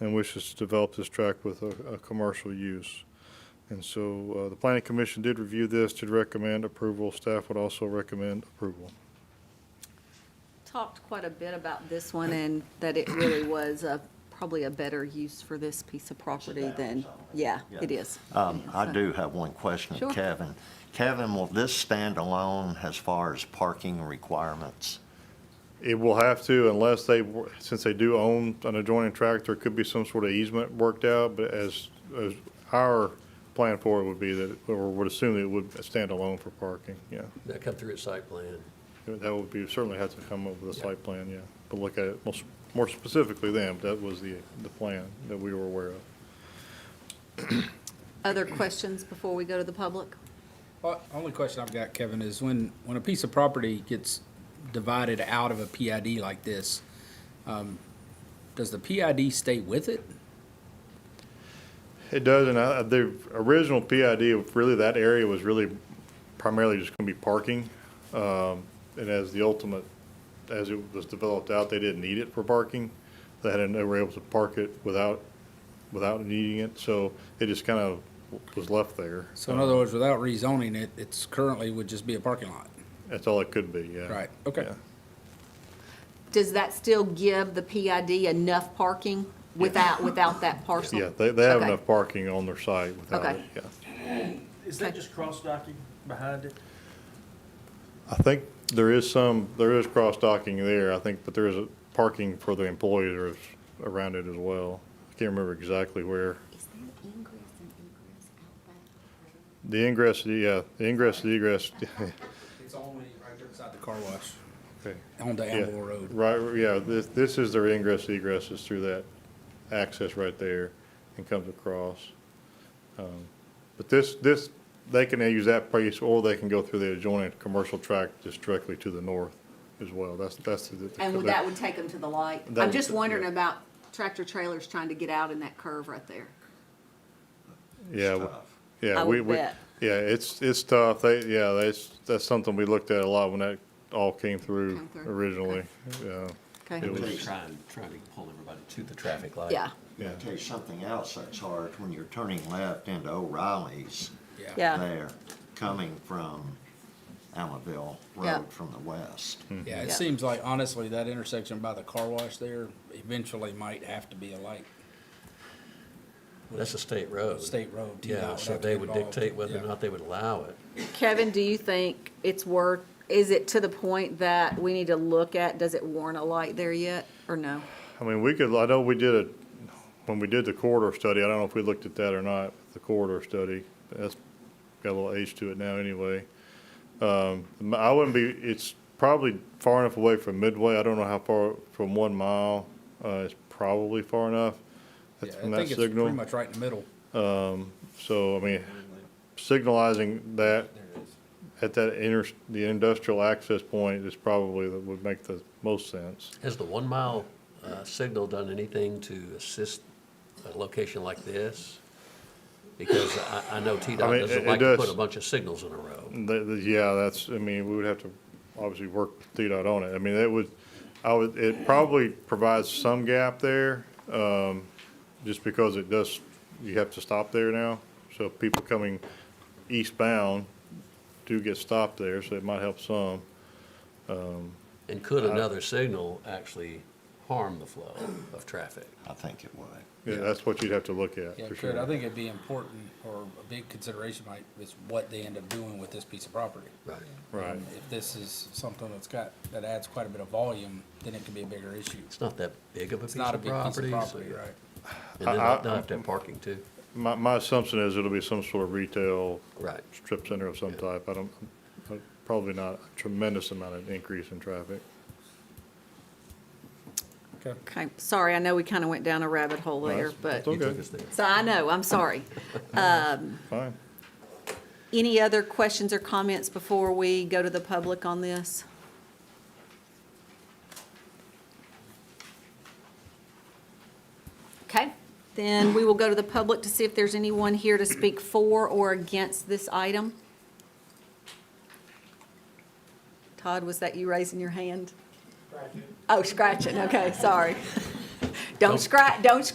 and wishes to develop this tract with a, a commercial use. And so uh, the planning commission did review this, did recommend approval. Staff would also recommend approval. talked quite a bit about this one and that it really was a, probably a better use for this piece of property than, yeah, it is. Um, I do have one question, Sure. of Kevin. Kevin, will this stand alone as far as parking requirements? It will have to unless they, since they do own an adjoining tract, there could be some sort of easement worked out, but as, as our plan for it would be that, or would assume that it would stand alone for parking, yeah. That come through at site plan. That would be, certainly have to come up with a site plan, yeah, but look at it most- more specifically then, that was the, the plan that we were aware of. Other questions before we go to the public? Well, only question I've got, Kevin, is when, when a piece of property gets divided out of a PID like this, um, does the PID stay with it? It does, and I, the original PID of really that area was really primarily just gonna be parking. Um, and as the ultimate, as it was developed out, they didn't need it for parking. They had, they were able to park it without, without needing it, so it just kind of was left there. So in Uh-huh. other words, without rezoning it, it's currently would just be a parking lot. That's all it could be, yeah. Right, okay. Yeah. Does that still give the PID enough parking without, without that parcel? Yeah, they, they have Okay. enough parking on their site without Okay. it, yeah. Is that just cross-docking behind it? I think there is some, there is cross-docking there, I think, but there is a parking for the employees around it as well. I can't remember exactly where. Is there ingress and egress out back? The ingress, yeah, the ingress, the egress, It's only right there beside the car wash. okay. On the Yeah, Amble Road. Right, yeah, this, this is their ingress, egress is through that access right there and comes across. Um, But this, this, they can use that place or they can go through the adjoining commercial tract just directly to the north as well. That's, that's. the- the- And would- that would take them to the light? That I'm would- just wondering yeah. about tractor trailers trying to get out in that curve right there. Yeah, w- yeah, I we, would we, yeah, bet. it's, it's tough. They, yeah, that's, that's something we looked at a lot when that all came through Came through, okay. originally. Yeah, Okay, It was- Trying, trying to pull everybody to the traffic light. yeah, yeah. I'll tell you something else that's hard, when you're turning left into O'Reilly's Yeah. yeah, there, coming from Allenville Yeah. Road from the west. Hmm. Mm-hmm. Yeah, it Yeah. seems like honestly, that intersection by the car wash there eventually might have to be a light Well, That's a state road. state road. too. That Yeah, would so have to they get would involved. dictate whether or Yeah. not they would allow it. Kevin, do you think it's worth, is it to the point that we need to look at, does it warrant a light there yet, or no? I mean, we could, I know we did it, when we did the corridor study, I don't know if we looked at that or not, the corridor study. That's got a little age to it now anyway. Um, I wouldn't be, it's probably far enough away from Midway. I don't know how far, from one mile, uh, it's probably far enough. That's Yeah, from I that think it's pretty signal. much right in the middle. So, I mean, signalizing that at that inter, the industrial access point is probably, that would make the most sense. Has the one mile uh, signal done anything to assist a location like this? Because I, I know I T-Dot mean, doesn't it- it like to does. put a bunch of signals in a row. The- the- yeah, that's, I mean, we would have to obviously work DDOT on it. I mean, it would, I would, it probably provides some gap there, um, just because it does, you have to stop there now. So people coming eastbound do get stopped there, so it might help some. And could Uh, another signal actually harm the flow of traffic? I think it would. Yeah, that's what you'd have to look at, Yeah, for it sure. could. I think it'd be important, or a big consideration might, is what they end up doing with this piece of property. Right. Right. If this is something that's got, that adds quite a bit of volume, then it could be a bigger issue. It's not that big of a piece It's not a of big piece property. of so- property, right? And then I- I- they'll they'll have to have parking too. My, my assumption is it'll be some sort of retail Right. strip center of some type. I don't, probably not a tremendous amount of increase in traffic. Okay. Okay, sorry, I know we kind of went down a rabbit hole there, but, That's okay. You took us there. so I know, I'm sorry. Fine. Any other questions or comments before we go to the public on this? Okay, then we will go to the public to see if there's anyone here to speak for or against this item. Todd, was that you raising your hand? Scratching. Oh, scratching, okay, sorry. Don't Don't- scratch, don't